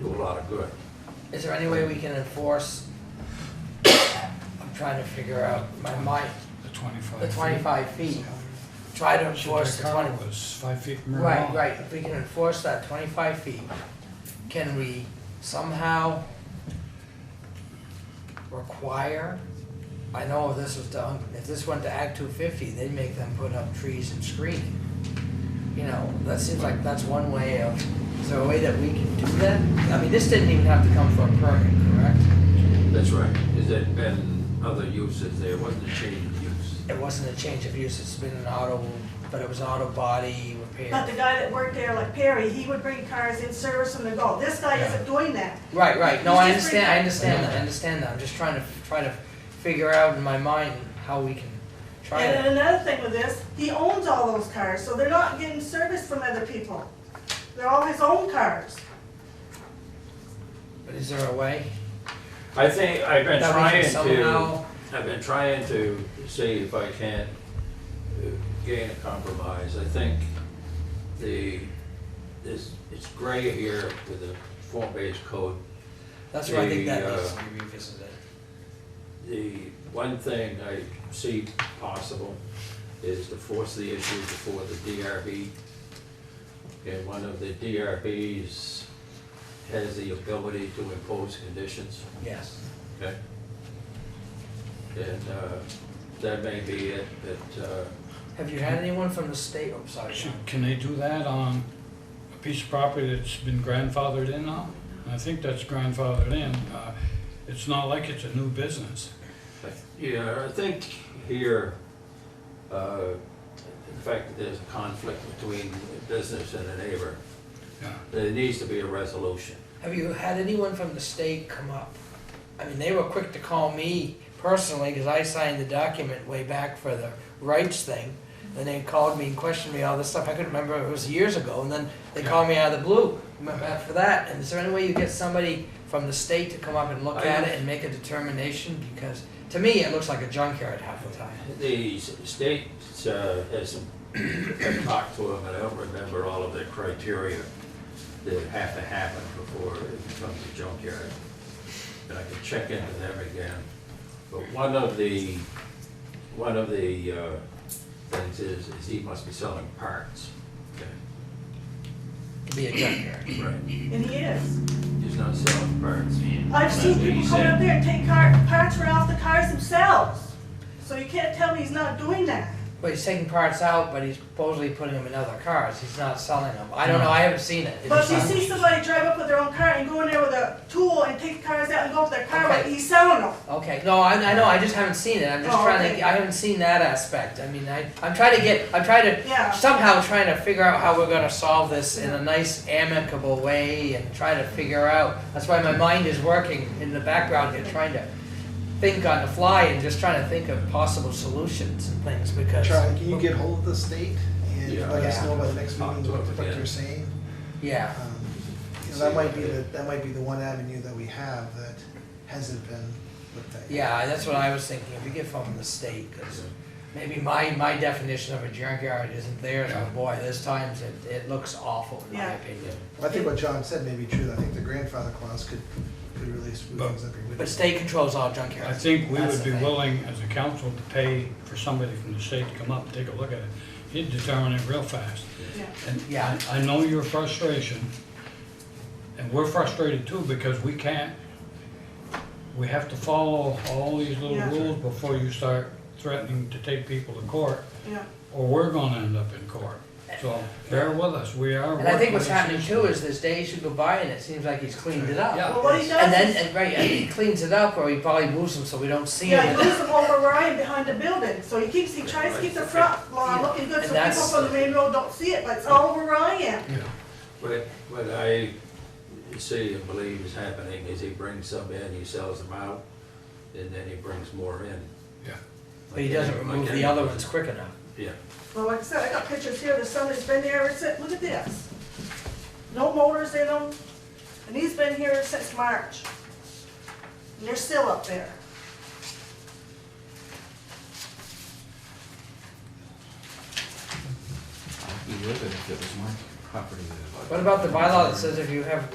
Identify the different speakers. Speaker 1: do a lot of good.
Speaker 2: Is there any way we can enforce? I'm trying to figure out my mind,
Speaker 3: The twenty-five.
Speaker 2: the
Speaker 3: feet.
Speaker 2: twenty-five feet, try to enforce the
Speaker 3: Chicago
Speaker 2: twenty.
Speaker 3: was five feet from
Speaker 2: Right, right, if we can enforce that twenty-five feet, can we somehow require? I know if this was done, if this went to Act two fifty, they'd make them put up trees and screening. You know, that seems like that's one way of, is there a way that we can do that? I mean, this didn't even have to come for a permit, correct?
Speaker 1: That's right. Is it been other uses there, wasn't a change of use?
Speaker 2: It wasn't a change of use, it's been an auto, but it was an auto body
Speaker 4: But the
Speaker 2: repair.
Speaker 4: guy that worked there, like Perry, he would bring cars in, service them, and go. This guy
Speaker 3: Yeah.
Speaker 4: isn't doing that.
Speaker 2: Right, right, no, I
Speaker 4: It's just
Speaker 2: understand, I
Speaker 4: right-
Speaker 2: understand that, I understand that, I'm just trying to, try to figure out in my mind how we can try
Speaker 4: And
Speaker 2: it.
Speaker 4: then another thing with this, he owns all those cars, so they're not getting service from other people. They're all his own cars.
Speaker 2: But is there a way?
Speaker 1: I think I've been
Speaker 2: that we
Speaker 1: trying to,
Speaker 2: can somehow?
Speaker 1: I've been trying to see if I can't uh, gain a compromise. I think the, this, it's gray here with the form-based code.
Speaker 2: That's where I think that
Speaker 1: the, uh,
Speaker 2: needs to be revisited.
Speaker 1: The one thing I see possible is to force the issue before the DRB. And one of the DRBs has the ability to impose conditions.
Speaker 2: Yes.
Speaker 1: Okay. And uh, that may be it, but uh,
Speaker 2: Have you had anyone from the state, oh, sorry, John.
Speaker 3: Should- Can they do that on a piece of property that's been grandfathered in now? I think that's grandfathered in. Uh, It's not like it's a new business.
Speaker 1: I- yeah, I think here, uh, the fact that there's a conflict between business and a neighbor,
Speaker 3: Yeah.
Speaker 1: there needs to be a resolution.
Speaker 2: Have you had anyone from the state come up? I mean, they were quick to call me personally because I signed the document way back for the rights thing. And they called me and questioned me all this stuff. I couldn't remember. It was years ago. And then they called me out of the blue for that. And is there any way you get somebody from the state to come up and look at it and make a determination? Because to me, it looks like a junkyard half the time.
Speaker 1: The s- state uh, has, I've talked to them, and I don't remember all of the criteria that have to happen before it becomes a junkyard. And I can check into them again. But one of the, one of the uh, things is, is he must be selling parts. Okay,
Speaker 2: To be a junkyard.
Speaker 1: Right.
Speaker 4: And he is.
Speaker 1: He's not selling parts.
Speaker 4: I've seen
Speaker 1: That's what
Speaker 4: people
Speaker 1: he
Speaker 4: come
Speaker 1: said.
Speaker 4: up there and take car, parts right off the cars themselves. So you can't tell me he's not doing that.
Speaker 2: But he's taking parts out, but he's supposedly putting them in other cars. He's not selling them. I don't know. I haven't seen it. It
Speaker 4: But
Speaker 2: just
Speaker 4: if you
Speaker 2: sounds-
Speaker 4: see somebody drive up with their own car and go in there with a tool and take cars out and go up their car, but
Speaker 2: Okay.
Speaker 4: he's selling them.
Speaker 2: Okay, no, I, I know, I just haven't seen it, I'm just
Speaker 4: Oh,
Speaker 2: trying
Speaker 4: okay.
Speaker 2: to, I haven't seen that aspect, I mean, I, I'm trying to get, I'm trying to,
Speaker 4: Yeah.
Speaker 2: somehow trying to figure out how we're gonna solve this in a nice amicable way and try to figure out, that's why my mind is working in the background here, trying to think on the fly and just trying to think of possible solutions and things, because.
Speaker 5: Charlie, can you get hold of the state and
Speaker 1: Yeah.
Speaker 5: let us know by the next
Speaker 1: Talk
Speaker 5: meeting
Speaker 1: to
Speaker 5: what
Speaker 1: them
Speaker 5: what
Speaker 1: again.
Speaker 5: they're saying?
Speaker 2: Yeah,
Speaker 5: Um, Because that might be, the that might be the one avenue that we have that hasn't been looked at. yet.
Speaker 2: yeah, that's what I was thinking, if we get from the state, cause maybe my, my definition of a junkyard isn't theirs, but boy, there's times it, it looks awful, in my
Speaker 4: Yeah.
Speaker 2: opinion.
Speaker 5: I think what John said may be true, I think the grandfather clause could, could really smooth
Speaker 3: But-
Speaker 5: things up here.
Speaker 2: But state controls all junkyards.
Speaker 3: I think we
Speaker 2: That's
Speaker 3: would
Speaker 2: the
Speaker 3: be
Speaker 2: thing.
Speaker 3: willing as a council to pay for somebody from the state to come up and take a look at it. He'd determine it real fast.
Speaker 4: Yeah.
Speaker 3: And
Speaker 2: Yeah.
Speaker 3: I I know your frustration, and we're frustrated too because we can't, we have to follow all these little
Speaker 4: Yeah.
Speaker 3: rules before you start threatening to take people to court,
Speaker 4: Yeah.
Speaker 3: or we're gonna end up in court. So bear with us, we are.
Speaker 2: And I think what's
Speaker 3: working on
Speaker 2: happening
Speaker 3: this.
Speaker 2: too is there's days you go by and it seems like he's cleaned it up.
Speaker 3: Yeah.
Speaker 4: Well, what he does
Speaker 2: And then,
Speaker 4: is-
Speaker 2: and right, and he cleans it up or he probably moves them so we don't see
Speaker 4: Yeah,
Speaker 2: him.
Speaker 4: he moves them over where I am behind the building, so he keeps, he tries to keep the front lawn looking good,
Speaker 2: And
Speaker 4: so people
Speaker 2: that's-
Speaker 4: from the main road don't see it, but it's all over where I am.
Speaker 3: Yeah.
Speaker 1: What, what I see and believe is happening is he brings some in, he sells them out, and then he brings more in.
Speaker 3: Yeah.
Speaker 2: But he doesn't remove the other ones quick enough.
Speaker 1: Yeah,
Speaker 4: Well, like I said, I got pictures here, the sun has been there ever since, look at this. No motors in them, and he's been here since March. And they're still up there.
Speaker 6: I'd be livid if it was my property that I bought.
Speaker 2: What about the bylaw that says if you have